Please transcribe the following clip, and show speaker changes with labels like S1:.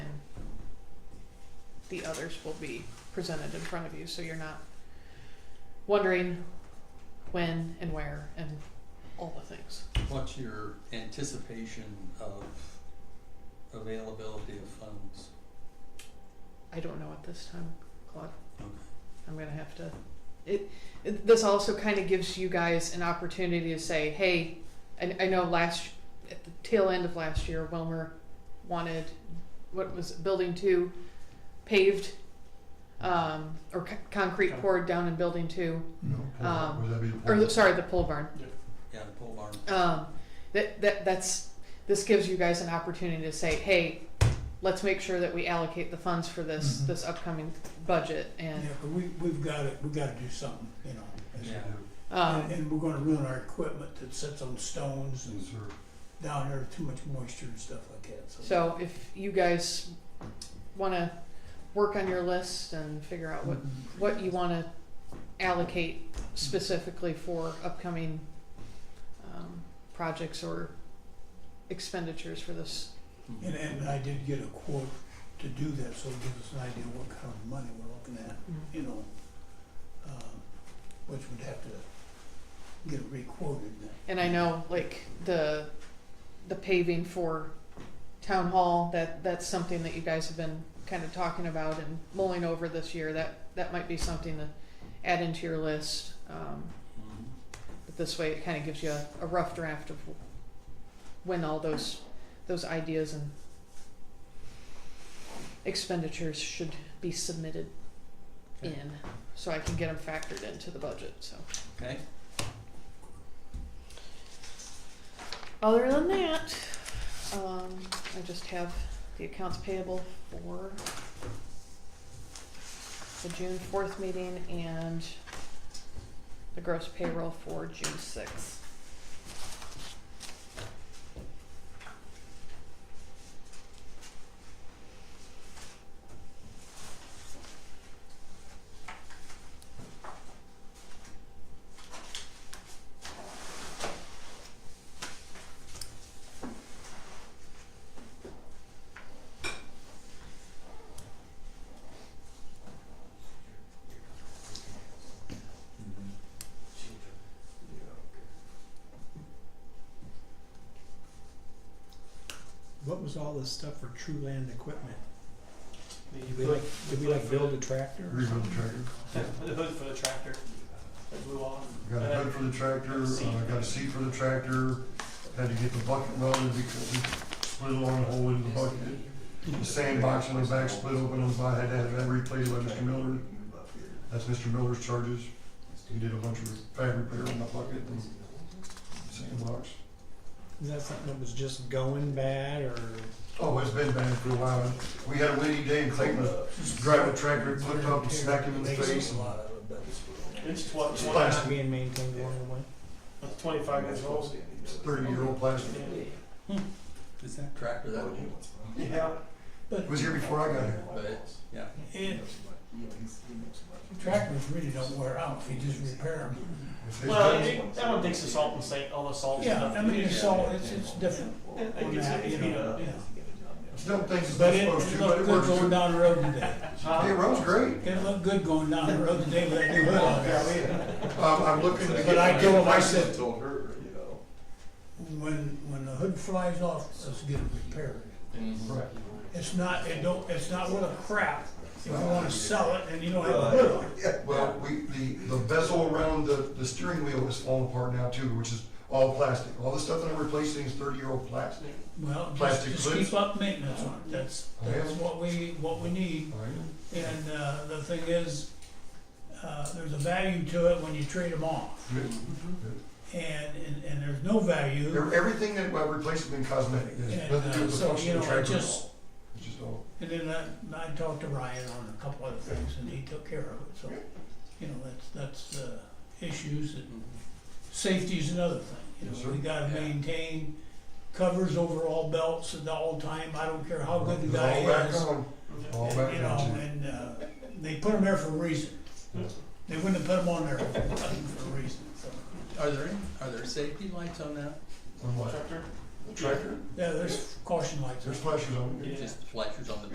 S1: the others will be presented in front of you, so you're not wondering when and where and all the things.
S2: What's your anticipation of availability of funds?
S1: I don't know at this time, Claude.
S2: Okay.
S1: I'm gonna have to. It, it this also kind of gives you guys an opportunity to say, hey, I, I know last at the tail end of last year, Wilmer wanted what was it, building two paved um, or c- concrete poured down in building two,
S3: No, pull up.
S1: Um,
S3: would that be the
S1: or
S3: pull
S1: the,
S3: up?
S1: sorry, the pole barn.
S2: Yeah, the pole barn.
S1: Um, that that that's this gives you guys an opportunity to say, hey, let's make sure that we allocate the funds for this
S3: Mhm.
S1: this upcoming budget
S4: Yeah,
S1: and.
S4: but we, we've got to, we've got to do something, you know. as-
S2: Yeah.
S1: Um,
S4: And, and we're gonna ruin our equipment that sits on stones and
S3: Yes, sir.
S4: down there, too much moisture and stuff like that, so.
S1: So if you guys want to work on your list and figure
S4: Mm-hmm.
S1: out what, what you want to allocate specifically for upcoming um, projects or expenditures for this.
S2: Mm-hmm.
S4: And, and I did get a quote to do that, so it gives us an idea what kind of money we're looking at,
S3: Mm-hmm.
S4: you know. um, Which would have to get it requoted then.
S1: And I know like the the paving for town hall that that's something that you guys have been kind of talking about and mulling over this year. That that might be something to add into your list. Um,
S2: Mhm.
S1: But this way, it kind of gives you a, a rough draft of when all those those ideas and expenditures should be submitted
S2: Okay.
S1: in, so I can get them factored into the budget. So
S2: Okay,
S1: other than that, um, I just have the accounts payable for the June fourth meeting and the gross payroll for June sixth.
S5: What was all this stuff for True Land equipment?
S6: The
S5: Did we
S6: hood-
S5: like, did we like build a tractor or
S3: Rebuild the
S5: something?
S3: tractor.
S6: yeah, The hood for the tractor, I blew off.
S3: Got a
S6: Uh,
S3: hood for the tractor, uh, got a seat for the tractor, had to get the bucket welded because we split a long hole in the bucket. The sandbox on the back split open on the side, had to have that replaced by Mr. Miller. That's Mr. Miller's charges. He did a bunch of fab repair on the bucket and sandbox.
S5: Is that something that was just going bad or?
S3: Oh, it's been bad for a while. We had a windy day and Clayton was driving a tractor, it flipped up and smacked him in the face. and-
S6: It's twen-
S3: It's
S6: twen-
S3: plastic.
S5: Not being maintained along the way?
S6: it's twenty-five years old.
S3: It's thirty-year-old plastic.
S6: Yeah.
S5: Is that?
S2: tractor that would,
S6: Yeah,
S3: It was here before I got here.
S2: but, yeah.
S4: And tractors really don't wear out, if you just repair them.
S3: It's-
S6: well,
S3: it's-
S6: it- everyone thinks the salt and sand, all the salt and
S4: Yeah,
S6: stuff.
S4: I mean, it's all,
S6: Yeah.
S4: it's, it's different.
S6: Yeah, I think
S4: on
S6: it's-
S4: that,
S6: it's
S4: you know,
S6: beat up, yeah.
S3: It's not things it's
S4: But
S3: not
S4: it,
S3: supposed
S4: it
S3: to, but
S4: looked
S3: it
S4: good going
S3: works.
S4: down the road today.
S6: Huh?
S3: Hey, road's great.
S4: It looked good going down the road today with that new hood on there.
S3: Um, I'm looking to
S4: But I
S3: get,
S4: told
S3: get
S4: him, I
S3: myself
S4: said, when, when the hood flies off, let's get it repaired. It's not, it don't, it's not worth a crap if you wanna sell it and you don't have a hood on. it.
S3: Well, we, the, the bezel around the, the steering wheel is falling apart now too, which is all plastic. All the stuff that I'm replacing is thirty-year-old plastic.
S4: Well, just,
S3: Plastic
S4: just
S3: clips.
S4: keep up maintenance on it, that's, that's what we, what we need. And, uh, the thing is, uh, there's a value to it when you trade them off. And, and, and there's no value,
S3: Every- Everything that I replaced has been cosmetic, It has nothing to do with the
S4: uh, So, you
S3: function of
S4: know,
S3: the
S4: it
S3: tractor at
S4: just-
S3: all. It's just all,
S4: and then I, I talked to Ryan on a couple other things and he took care of it, so, you know, that's, that's, uh, issues that
S2: Mm-hmm.
S4: Safety is another thing, you
S3: Yes,
S4: know,
S3: sir.
S4: we gotta
S2: Yeah.
S4: maintain covers over all belts at all time, I don't care how good the
S3: It's
S4: guy
S3: all back
S4: is.
S3: on, all
S4: and,
S3: back
S4: You
S3: on,
S4: know,
S3: too.
S4: and, uh, they put them there for a reason.
S3: Yeah.
S4: They wouldn't have put them on there for nothing for a reason, so.
S2: Are there, any- are there safety lights on that?
S3: On what?
S6: Tractor?
S3: Tractor?
S4: Yeah, there's caution lights.
S3: There's flashers on it.
S6: Yeah.
S2: Just flashers on the